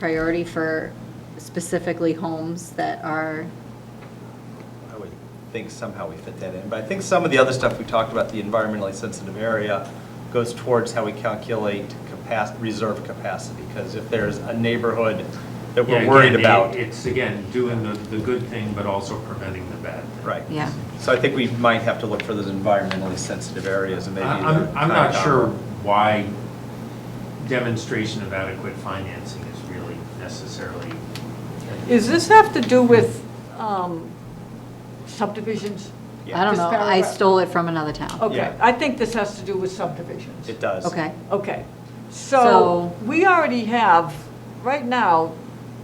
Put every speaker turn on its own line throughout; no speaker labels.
priority for specifically homes that are,
I would think somehow we fit that in, but I think some of the other stuff we talked about, the environmentally sensitive area, goes towards how we calculate capacity, reserve capacity, because if there's a neighborhood that
Yeah,
we're
again,
worried
the-
about,
It's, again, doing the, the good thing, but also preventing the bad thing.
right.
yeah.
So I think we might have to look for those environmentally sensitive areas and maybe.
I-
they're
I'm, I'm
knocked
not
out.
sure why demonstration of adequate financing is really necessarily.
Is this have to do with um, subdivisions?
I
Yeah,
don't
This
know, I
paragraph.
stole it from another town.
Okay,
Yeah.
I think this has to do with subdivisions.
it does.
Okay,
Okay,
So-
so we already have, right now,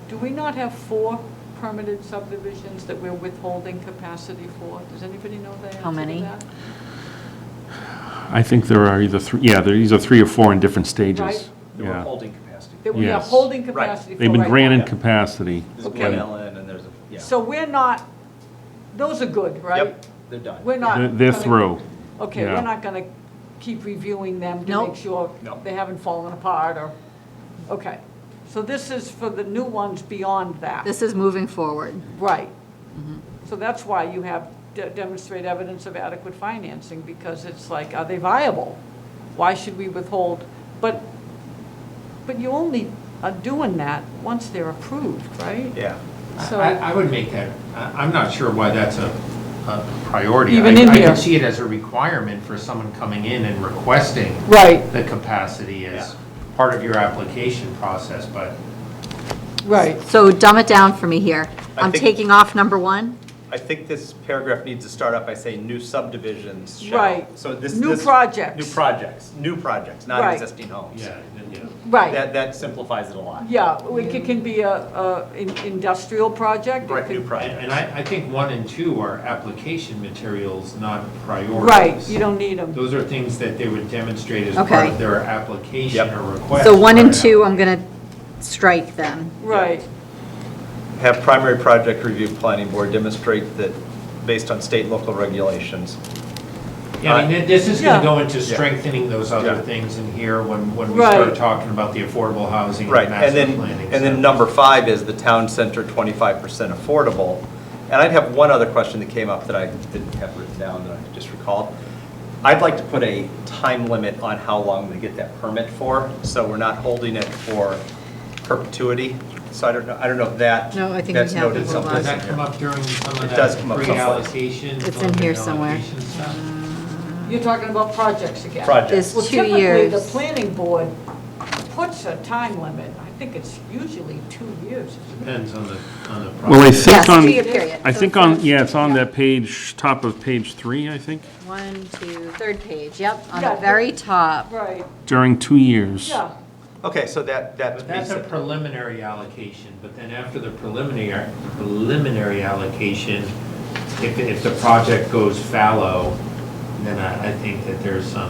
do we not have four permitted subdivisions that we're withholding capacity for? Does anybody know the answer to that?
How many?
I think there are either three, yeah, there, these are three or four in different
Right.
stages.
They were
Yeah.
holding capacity.
That we are
Yes.
holding
Right.
capacity for
They've been
right now?
granted capacity.
There's
Okay.
one Ellen and there's, a yeah.
So we're not, those are good, right?
Yep, they're done.
We're not.
They're they're
gonna-
through.
Okay,
Yeah.
we're not going to keep reviewing them to
Nope.
make sure
Nope.
they haven't fallen apart or, okay. So this is for the new ones beyond that.
this is Mm-hmm. moving forward.
Right. So that's why you have de- demonstrate evidence of adequate financing, because it's like, are they viable? Why should we withhold? But, but you only are doing that once they're approved, right?
Yeah.
So-
I, I would make that, I, I'm not sure why that's a, a priority. I-
Even in
I
here.
can see it as a requirement for someone coming in and requesting
Right,
the capacity as
Yeah.
part of your application process, but
right.
So dumb it down for me here.
I
I'm
think-
taking off number one.
I think this paragraph needs to start out by saying new subdivisions shall.
Right.
So this.
New
this-
projects.
New projects, new projects, not
Right.
existing homes.
yeah, yeah.
Right,
That, that simplifies it a lot.
yeah, it c- can be a, a in- industrial project. it
Right, new
could-
projects.
And I, I think one and two are application materials, not priorities.
Right, you don't need them.
Those are things that they would demonstrate as
Okay.
part of their application
Yep.
or request.
So one and
Right.
two, um, I'm going to strike them.
Right,
Have primary project review planning board demonstrate that, based on state and local regulations.
Yeah, I mean, this is
Yeah.
gonna go into
Yeah.
strengthening those other
Yeah.
things in here when, when we
Right.
start talking about the affordable housing
Right,
and
and
master
then,
planning.
and then
stuff.
number five is the town center twenty-five percent affordable. And I'd have one other question that came up that I didn't have written down that I just recalled. I'd like to put a time limit on how long they get that permit for, so we're not holding it for perpetuity. So I don't know, I don't know if that,
No, I think we
that's
have
noted
to
Well,
someplace.
Does that come up during some of
It does
that
come up
pre-allocation?
someplace. It's
some of
in
the
here somewhere.
allocation stuff?
you're talking about projects again.
Project.
There's
Well,
two
typically, the
years.
planning board puts a time limit. I think it's usually two years.
Depends on the, on the project.
Well, I
Yes,
think
two-year
on,
period.
I
So
think
it's
on,
not-
yeah, it's on that page, top of page three, I think,
One, two, third page, yep, on
Yeah,
the
the-
very top.
Right,
during two years.
yeah.
Okay, so that, that
But that's
meets
a
it.
preliminary allocation, but then after the preliminary, preliminary allocation, if, if the project goes fallow, then I, I think that there's some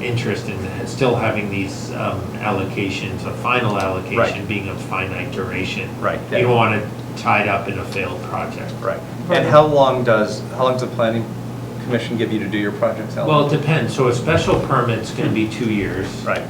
interest in that, still having these um, allocations, a final allocation
Right.
being of finite duration.
Right,
You
that-
don't want it tied up in a failed project.
Right. And how long does, how long does the planning commission give you to do your projects, Ellen?
Well, it depends, so a special permit's gonna be two years.
Right.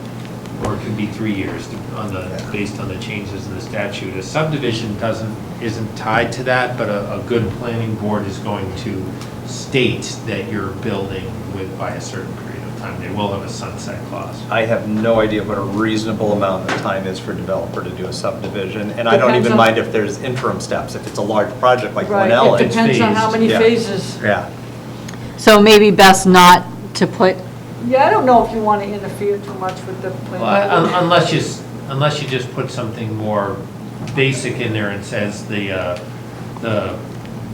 or it could be three years to- on the, based on the changes in the statute. A subdivision doesn't, isn't tied to that, but a, a good planning board is going to state that you're building with, by a certain period of time. They will have a sunset clause.
I have no idea what a reasonable amount of time is for a developer to do a subdivision, and I don't
Depends
even
on-
mind if there's interim steps, if it's a large project like Glen
Right, it
Ellen.
depends on how many
Yeah.
phases.
Yeah,
So maybe best not to put,
Yeah, I don't know if you want to interfere too much with the
Well, un-
planning.
un-
board.
unless you, s- unless you just put something more basic in there and says the, uh, the,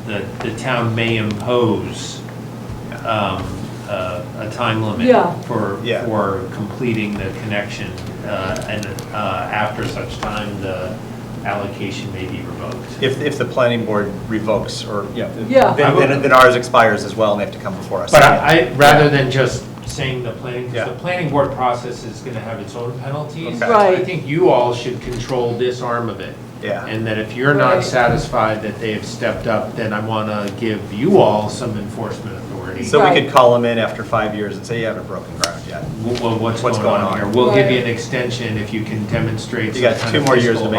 the, the town may impose, um, uh, a time limit
Yeah.
for,
Yeah.
for completing the connection, uh, and, uh, after such time, the allocation may be revoked.
if, if the planning board revokes, or, you know,
Yeah.
then- then, then ours expires as well, and they have to come before us.
But I, I- rather than just saying the planning, 'cause
Yeah.
the planning board process is gonna have its own penalties.
Okay.
Right.
I think you all should control this arm of it.
Yeah.
And that if you're not
Right.
satisfied that they have stepped up, then I wanna give you all some enforcement authority certainty.
So we could
Right.
call them in after five years and say, you haven't broken ground yet.
Wh- wh- What's
What's
going on
going
here?
on?
We'll give you
Right.
an extension if you can demonstrate.
You got
some kind
two
of
more years to
fiscal
make